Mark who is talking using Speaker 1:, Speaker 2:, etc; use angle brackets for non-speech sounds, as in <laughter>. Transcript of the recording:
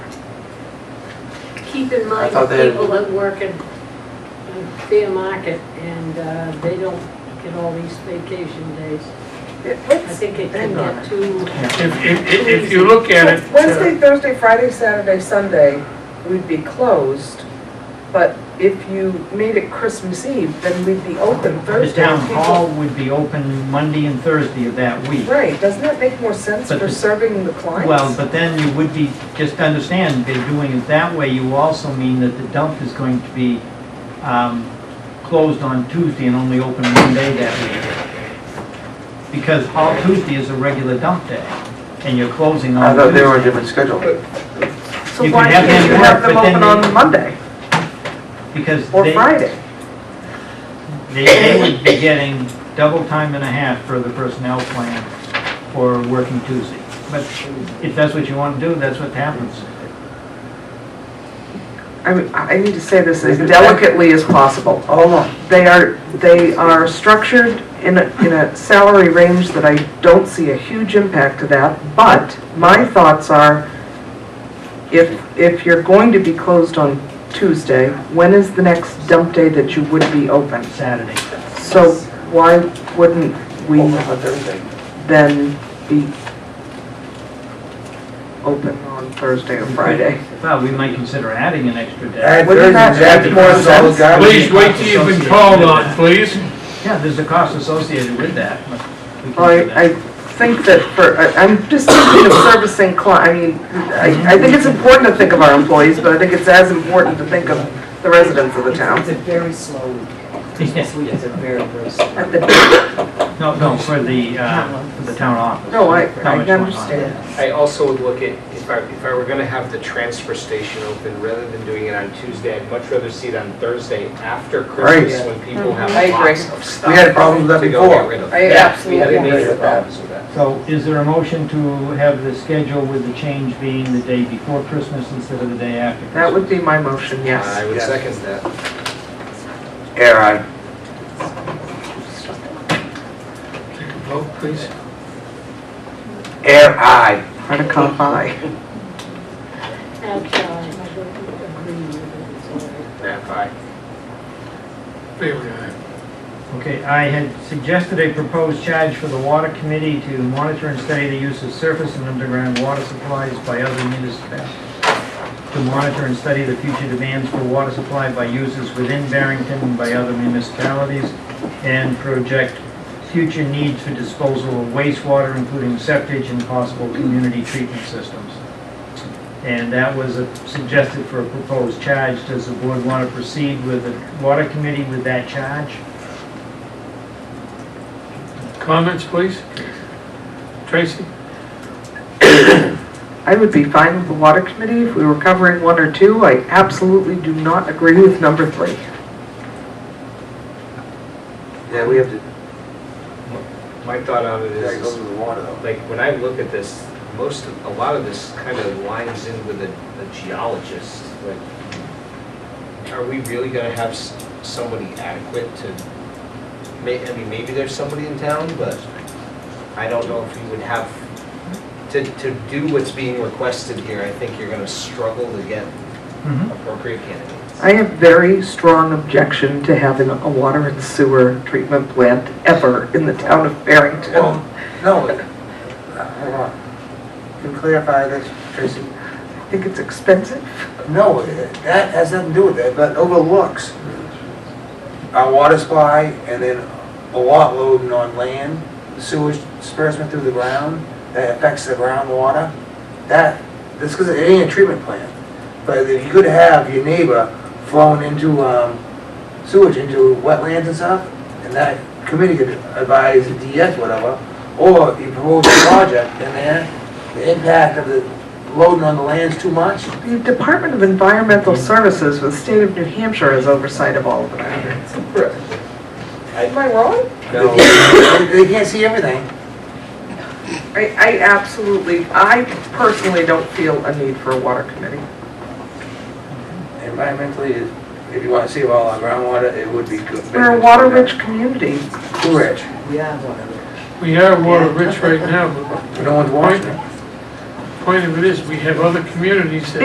Speaker 1: keep in
Speaker 2: I
Speaker 1: mind
Speaker 2: thought they
Speaker 1: the
Speaker 2: had-
Speaker 1: people that work in in Fair Market and uh, they don't get all these vacation days. I think it can
Speaker 2: hang on.
Speaker 1: get too,
Speaker 3: If, if, if- if you look at it,
Speaker 2: Wednesday, Thursday, Friday, Saturday, Sunday, we'd be closed, but if you made it Christmas Eve, then we'd be open
Speaker 4: The
Speaker 2: Thursday.
Speaker 4: town
Speaker 2: People-
Speaker 4: hall would be open Monday and Thursday of that week.
Speaker 2: Right, doesn't that make more sense
Speaker 4: But
Speaker 2: for
Speaker 4: the-
Speaker 2: serving the clients?
Speaker 4: Well, but then you would be, just understand, by doing it that way, you also mean that the dump is going to be um, closed on Tuesday and only open one day that week. Because all Tuesday is a regular dump day, and you're closing on
Speaker 5: I
Speaker 4: Tuesday.
Speaker 5: thought they were on a different schedule.
Speaker 2: So
Speaker 4: you
Speaker 2: why
Speaker 4: could have
Speaker 2: can't
Speaker 4: them
Speaker 2: you have
Speaker 4: work,
Speaker 2: them
Speaker 4: but then
Speaker 2: open on
Speaker 4: they-
Speaker 2: Monday
Speaker 4: Because
Speaker 2: or
Speaker 4: they-
Speaker 2: Friday?
Speaker 4: They, they would be getting double time and a half for the personnel plan for working Tuesday. But if that's what you want to do, that's what happens.
Speaker 2: I mean, I I need to say this as delicately as possible. Hold on. They are, they are structured in a, in a salary range that I don't see a huge impact to that, but my thoughts are, if, if you're going to be closed on Tuesday, when is the next dump day that you would be open?
Speaker 4: Saturday.
Speaker 2: So why wouldn't we
Speaker 5: Open on Thursday.
Speaker 2: then be open on Thursday or Friday?
Speaker 4: Well, we might consider adding an extra day.
Speaker 5: Add
Speaker 2: Wouldn't that
Speaker 5: Thursday,
Speaker 2: make
Speaker 5: that's
Speaker 2: more
Speaker 5: more solid
Speaker 2: sense?
Speaker 5: garbage.
Speaker 3: please wait till you've been called on, please.
Speaker 4: Yeah, there's a cost associated with that, but we
Speaker 2: Well,
Speaker 4: can do
Speaker 2: I, I
Speaker 4: that.
Speaker 2: think that for, I- I'm just thinking of servicing cli, I mean, I, I think it's important to think of our employees, but I think it's as important to think of the residents of the
Speaker 6: It's
Speaker 2: town.
Speaker 6: a very slow week.
Speaker 4: <laughs>
Speaker 6: Christmas week is a very, very slow.
Speaker 2: At the-
Speaker 4: No, no, for the, uh, for the town office.
Speaker 2: No, I,
Speaker 4: How
Speaker 2: I
Speaker 4: much went on.
Speaker 2: understand.
Speaker 7: I also would look at, if I, if I were gonna have the transfer station open, rather than doing it on Tuesday, I'd much rather see it on Thursday after Christmas,
Speaker 5: Right.
Speaker 7: when people have
Speaker 2: I agree.
Speaker 7: lots of stuff.
Speaker 5: We had problems with that
Speaker 7: to go get
Speaker 5: before.
Speaker 7: rid of.
Speaker 2: I
Speaker 7: Yeah,
Speaker 2: absolutely
Speaker 7: We had
Speaker 2: agree
Speaker 7: major
Speaker 2: with that.
Speaker 7: problems with that.
Speaker 4: So is there a motion to have the schedule with the change being the day before Christmas instead of the day after?
Speaker 2: That would be my motion,
Speaker 7: Uh, I
Speaker 2: yes.
Speaker 7: would
Speaker 5: Yes.
Speaker 7: second that.
Speaker 5: Air aye.
Speaker 3: Vote, please.
Speaker 5: Air aye.
Speaker 2: Hard to come by.
Speaker 1: actually, I don't agree with it, it's all right.
Speaker 7: Nap aye.
Speaker 3: Favor aye.
Speaker 4: Okay, I had suggested a proposed charge for the water committee to monitor and study the use of surface and underground water supplies by other municipalities. To monitor and study the future demands for water supply by users within Barrington and by other municipalities. And project future needs for disposal of wastewater, including septage and possible community treatment systems. And that was a- suggested for a proposed charge. Does the board want to proceed with the water committee with that charge?
Speaker 3: Comments, please? Tracy?
Speaker 2: I would be fine with the water committee if we were covering one or two. I absolutely do not agree with number three.
Speaker 5: Yeah, we have to,
Speaker 7: My thought on it
Speaker 5: that goes
Speaker 7: is,
Speaker 5: with the water though.
Speaker 7: like, when I look at this, most, of- a lot of this kind of lines in with a a geologist, like, are we really gonna have s- somebody adequate to, may, I mean, maybe there's somebody in town, but I don't know if you would have, to, to do what's being requested here, I think you're gonna struggle to get
Speaker 4: Mm-hmm.
Speaker 7: appropriate candidates.
Speaker 2: I have very strong objection to having a water and sewer treatment plant ever in the town of Barrington.
Speaker 5: Well, no, uh, hold on. Can you clarify this, Tracy?
Speaker 2: I think it's expensive.
Speaker 5: No, uh, that has nothing to do with it, but overlooks our water supply and then a lot loading on land, sewage disbursement through the ground, that affects the groundwater. That, this, because it ain't a treatment plant, but if you could have your neighbor flowing into, um, sewage into wetlands and stuff, and that committee could advise the DS whatever, or you propose a project in there, the impact of the loading on the land's too much,
Speaker 2: The Department of Environmental Services with State of New Hampshire has oversight of all of that. Am I wrong?
Speaker 7: <coughs> No.
Speaker 5: They they can't see everything.
Speaker 2: I, I absolutely, I personally don't feel a need for a water committee.
Speaker 5: Environmentally, if you want to see all our groundwater, it would be good.
Speaker 2: We're a water-rich community.
Speaker 5: Too rich.
Speaker 6: We have one of them.
Speaker 3: We are water rich right now, but
Speaker 5: No one's watching it.
Speaker 3: the point of it is, we have other communities that